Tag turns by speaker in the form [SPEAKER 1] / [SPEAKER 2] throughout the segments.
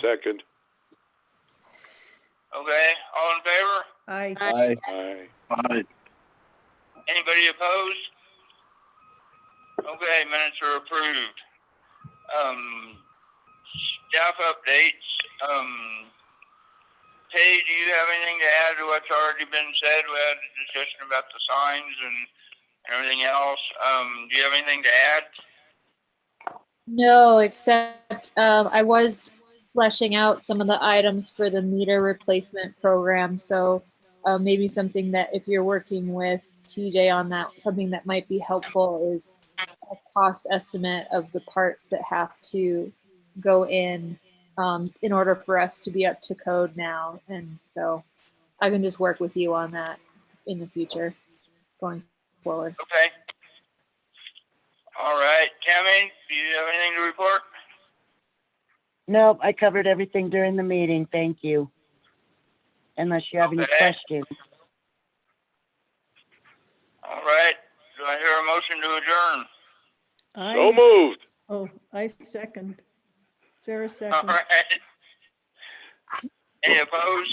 [SPEAKER 1] Second.
[SPEAKER 2] Okay, all in favor?
[SPEAKER 3] Aye.
[SPEAKER 4] Aye.
[SPEAKER 1] Aye.
[SPEAKER 5] Aye.
[SPEAKER 2] Anybody opposed? Okay, minutes are approved. Um, staff updates, um, Paige, do you have anything to add to what's already been said? We had a discussion about the signs and everything else. Um, do you have anything to add?
[SPEAKER 6] No, except um, I was fleshing out some of the items for the meter replacement program. So uh, maybe something that if you're working with TJ on that, something that might be helpful is a cost estimate of the parts that have to go in um, in order for us to be up to code now. And so I can just work with you on that in the future going forward.
[SPEAKER 2] Okay. All right, Tammy, do you have anything to report?
[SPEAKER 7] Nope, I covered everything during the meeting, thank you. Unless you have any
[SPEAKER 2] Okay.
[SPEAKER 7] questions.
[SPEAKER 2] All right, do I hear a motion to adjourn?
[SPEAKER 1] So
[SPEAKER 3] Aye.
[SPEAKER 1] moved.
[SPEAKER 3] Oh, I second. Sarah
[SPEAKER 2] All
[SPEAKER 3] seconds.
[SPEAKER 2] right. Any opposed?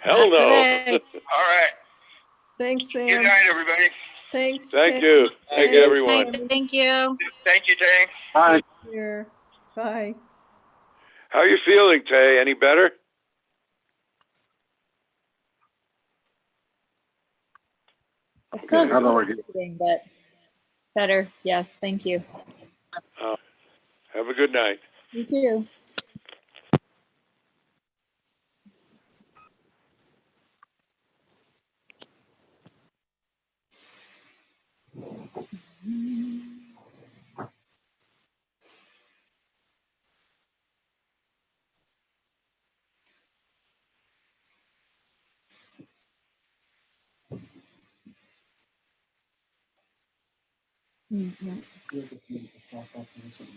[SPEAKER 1] Hell no.
[SPEAKER 2] All right.
[SPEAKER 3] Thanks,
[SPEAKER 2] Good
[SPEAKER 3] Sam.
[SPEAKER 2] night, everybody.
[SPEAKER 3] Thanks.
[SPEAKER 1] Thank
[SPEAKER 3] Tim.
[SPEAKER 1] you. Thank you, everyone.
[SPEAKER 4] Thank you.
[SPEAKER 2] Thank you, Tay.
[SPEAKER 5] Aye.
[SPEAKER 3] Here. Bye.
[SPEAKER 1] How you feeling, Tay? Any better?
[SPEAKER 6] It's still
[SPEAKER 5] Another one.
[SPEAKER 6] good, but better. Yes, thank you.
[SPEAKER 1] Have a good night.
[SPEAKER 6] You too. Mm, yeah. Mm-hmm.
[SPEAKER 8] feel that you yourself out to this one.